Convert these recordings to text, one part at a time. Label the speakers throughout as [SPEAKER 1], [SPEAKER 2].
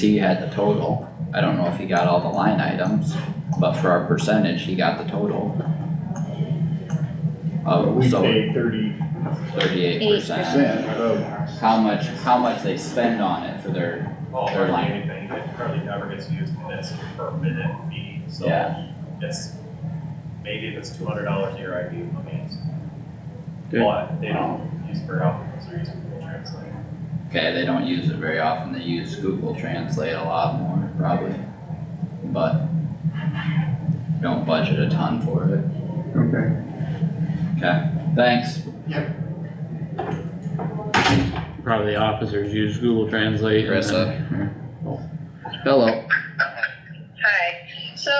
[SPEAKER 1] He had the total, I don't know if he got all the line items, but for our percentage, he got the total. Of,
[SPEAKER 2] We
[SPEAKER 1] so
[SPEAKER 2] pay thirty
[SPEAKER 1] thirty-eight percent,
[SPEAKER 2] percent of,
[SPEAKER 1] how much, how much they spend on it for their,
[SPEAKER 3] Oh,
[SPEAKER 1] They're
[SPEAKER 3] hardly
[SPEAKER 1] lying.
[SPEAKER 3] anything, it hardly ever gets used in this per minute fee, so.
[SPEAKER 1] Yeah.
[SPEAKER 3] It's, maybe if it's two hundred dollars a year, I'd be amazed.
[SPEAKER 4] Good.
[SPEAKER 3] But they don't use per hour, so they're using Google Translate.
[SPEAKER 1] okay, they don't use it very often, they use Google Translate a lot more, probably. But don't budget a ton for it,
[SPEAKER 4] Okay,
[SPEAKER 1] okay, thanks,
[SPEAKER 4] probably the officers use Google Translate. and then-
[SPEAKER 1] Carissa.
[SPEAKER 4] Hello,
[SPEAKER 5] Hi. So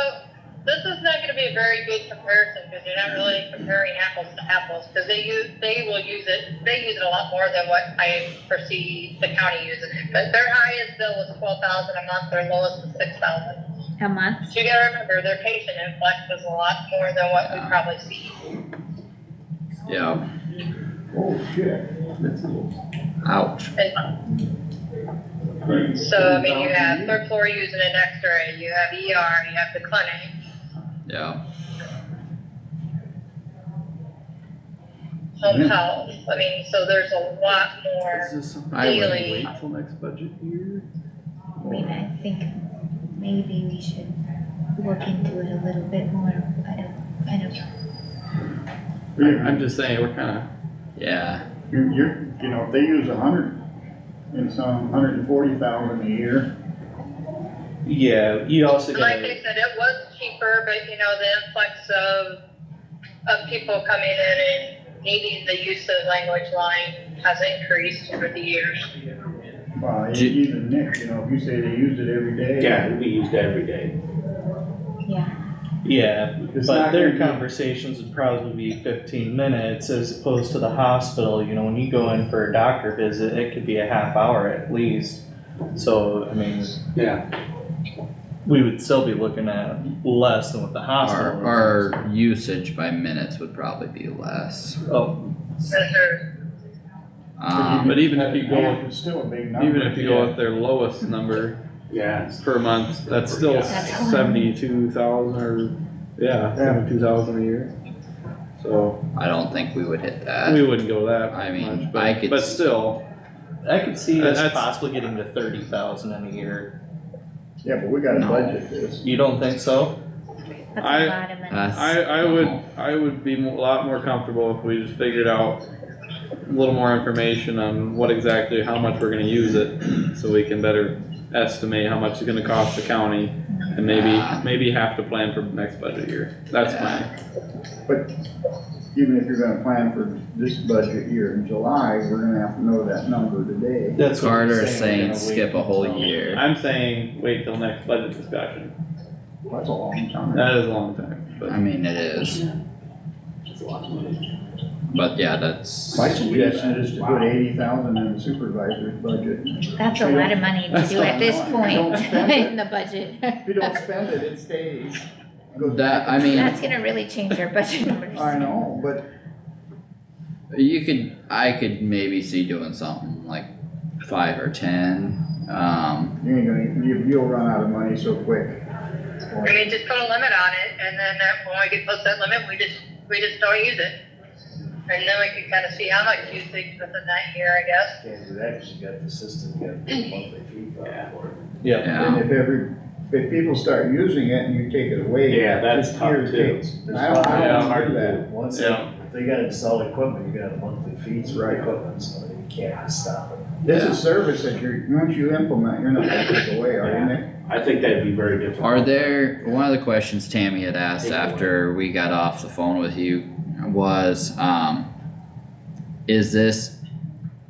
[SPEAKER 5] this is not going to be a very good comparison because you're not really comparing apples to apples because they use they will use it they use it a lot more than what I foresee the county using it. But their highest bill was twelve thousand a month. Their lowest was six thousand.
[SPEAKER 6] a month.
[SPEAKER 5] So you got to remember their patient influx was a lot more than what we probably see.
[SPEAKER 1] Yeah,
[SPEAKER 2] oh shit. That's cool.
[SPEAKER 1] ouch.
[SPEAKER 5] So I mean you have third floor using an X-ray, you have ER, you have the clinic.
[SPEAKER 1] Yeah,
[SPEAKER 5] Home health. I mean, so there's a lot more.
[SPEAKER 4] is Mm-hmm. this something I would
[SPEAKER 5] Daily.
[SPEAKER 4] wait till next budget year?
[SPEAKER 6] I mean, I think maybe we should look into it a little bit more. I don't, I don't.
[SPEAKER 4] I- I'm just saying, we're kinda,
[SPEAKER 1] yeah,
[SPEAKER 2] You're, you're, you know, if they use a hundred and some, hundred and forty thousand a year,
[SPEAKER 7] Yeah, you also
[SPEAKER 5] Like
[SPEAKER 7] gotta,
[SPEAKER 5] I said, it was cheaper, but you know, the influx of, of people coming in and needing the use of language line has increased over the years.
[SPEAKER 2] well,
[SPEAKER 1] Do-
[SPEAKER 2] even Nick, you know, if you say they use it every day.
[SPEAKER 7] yeah, it'd be used every day.
[SPEAKER 6] Yeah,
[SPEAKER 7] Yeah,
[SPEAKER 2] It's
[SPEAKER 7] but
[SPEAKER 2] not
[SPEAKER 7] their
[SPEAKER 2] gonna be-
[SPEAKER 7] conversations would probably be fifteen minutes as opposed to the hospital, you know, when you go in for a doctor visit, it could be a half hour at least. So, I mean.
[SPEAKER 4] Yeah.
[SPEAKER 7] We would still be looking at less than what the hospital.
[SPEAKER 1] our,
[SPEAKER 7] is.
[SPEAKER 1] our usage by minutes would probably be less.
[SPEAKER 7] Oh,
[SPEAKER 5] Those are-
[SPEAKER 1] Um,
[SPEAKER 4] but even if you go,
[SPEAKER 2] It's still a big number.
[SPEAKER 4] even if you go with their lowest number
[SPEAKER 8] Yeah,
[SPEAKER 4] per month, that's still
[SPEAKER 6] That's a lot.
[SPEAKER 4] seventy-two thousand or, yeah, seventy-two thousand a year. So,
[SPEAKER 1] I don't think we would hit
[SPEAKER 4] we
[SPEAKER 1] that.
[SPEAKER 4] wouldn't go that
[SPEAKER 1] Uh, I mean,
[SPEAKER 4] much,
[SPEAKER 1] I could
[SPEAKER 4] but, but
[SPEAKER 1] s-
[SPEAKER 4] still,
[SPEAKER 7] I could see
[SPEAKER 4] That-
[SPEAKER 7] us
[SPEAKER 4] that's-
[SPEAKER 7] possibly getting to thirty thousand in a year.
[SPEAKER 2] Yeah, but we gotta
[SPEAKER 1] No.
[SPEAKER 2] budget this.
[SPEAKER 7] You don't think so?
[SPEAKER 6] that's a
[SPEAKER 4] I-
[SPEAKER 6] lot of money.
[SPEAKER 1] That's-
[SPEAKER 4] I, I would, I would be mo- a lot more comfortable if we just figured out a little more information on what exactly, how much we're gonna use it, so we can better estimate how much it's gonna cost the county, and maybe, maybe have to plan for next budget year, that's my,
[SPEAKER 2] Even if you're gonna plan for this budget year in July, we're gonna have to know that number today.
[SPEAKER 7] That's what I'm
[SPEAKER 1] Carter is
[SPEAKER 7] saying,
[SPEAKER 1] saying
[SPEAKER 7] we're gonna wait
[SPEAKER 1] skip a whole
[SPEAKER 7] until-
[SPEAKER 1] year.
[SPEAKER 4] I'm saying wait till next budget discussion,
[SPEAKER 2] That's a long time.
[SPEAKER 4] that is a long time, but.
[SPEAKER 1] I mean, it is. But yeah, that's,
[SPEAKER 2] My suggestion is to put eighty thousand in the supervisor's budget.
[SPEAKER 6] That's a lot of money to
[SPEAKER 2] That's
[SPEAKER 6] do
[SPEAKER 2] a
[SPEAKER 6] at this
[SPEAKER 2] lot. Don't
[SPEAKER 6] point
[SPEAKER 2] spend it.
[SPEAKER 6] in the budget.
[SPEAKER 2] If you don't spend it, it stays. Goes
[SPEAKER 1] that, I mean,
[SPEAKER 6] That's gonna really change our budget numbers.
[SPEAKER 2] I know, but
[SPEAKER 1] you could, I could maybe see doing something like five or ten. Um,
[SPEAKER 2] you ain't gonna, you, you'll run out of money so quick.
[SPEAKER 5] I mean, just put a limit on it and then that- when we get close to that limit, we just, we just don't use it. And then we can kind of see how much usage within that year, I guess.
[SPEAKER 8] can't do that, cause you got the system, you got the monthly fee for
[SPEAKER 7] Yeah,
[SPEAKER 2] And
[SPEAKER 1] yeah,
[SPEAKER 2] if every, if people start using it and you take it
[SPEAKER 8] it.
[SPEAKER 2] away.
[SPEAKER 8] that's
[SPEAKER 2] just
[SPEAKER 8] tough
[SPEAKER 2] here,
[SPEAKER 8] too.
[SPEAKER 2] take- I don't, I
[SPEAKER 4] Yeah,
[SPEAKER 2] don't want to do that.
[SPEAKER 8] Once, they-
[SPEAKER 4] Yeah.
[SPEAKER 8] if they gotta install equipment, you got a monthly fee for
[SPEAKER 2] Right.
[SPEAKER 8] equipment, so you can't just stop it.
[SPEAKER 2] This
[SPEAKER 1] Yeah.
[SPEAKER 2] is service that you're, once you implement, you're not gonna take away, are you, Nick?
[SPEAKER 8] I think that'd be very difficult.
[SPEAKER 1] are there, one of the questions Tammy had asked after we got off the phone with you was, um. Is this,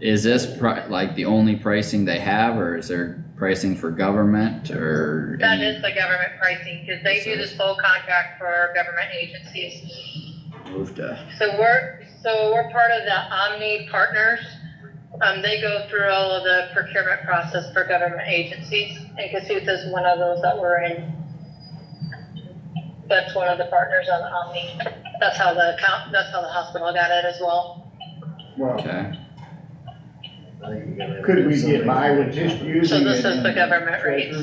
[SPEAKER 1] is this pri- like the only pricing they have, or is there pricing for government or?
[SPEAKER 5] That
[SPEAKER 1] any-
[SPEAKER 5] is the government pricing because they do this whole contract for government agencies.
[SPEAKER 1] Move to.
[SPEAKER 5] So we're, so we're part of the Omni Partners. Um, they go through all of the procurement process for government agencies, and Cassuth is one of those that we're in. That's one of the partners on Omni. That's how the account, that's how the hospital got it as well.
[SPEAKER 2] Well,
[SPEAKER 1] Okay,
[SPEAKER 9] I think you gotta-
[SPEAKER 8] Could we get by with just using
[SPEAKER 2] So
[SPEAKER 8] it
[SPEAKER 2] this is
[SPEAKER 8] in
[SPEAKER 2] the government rate.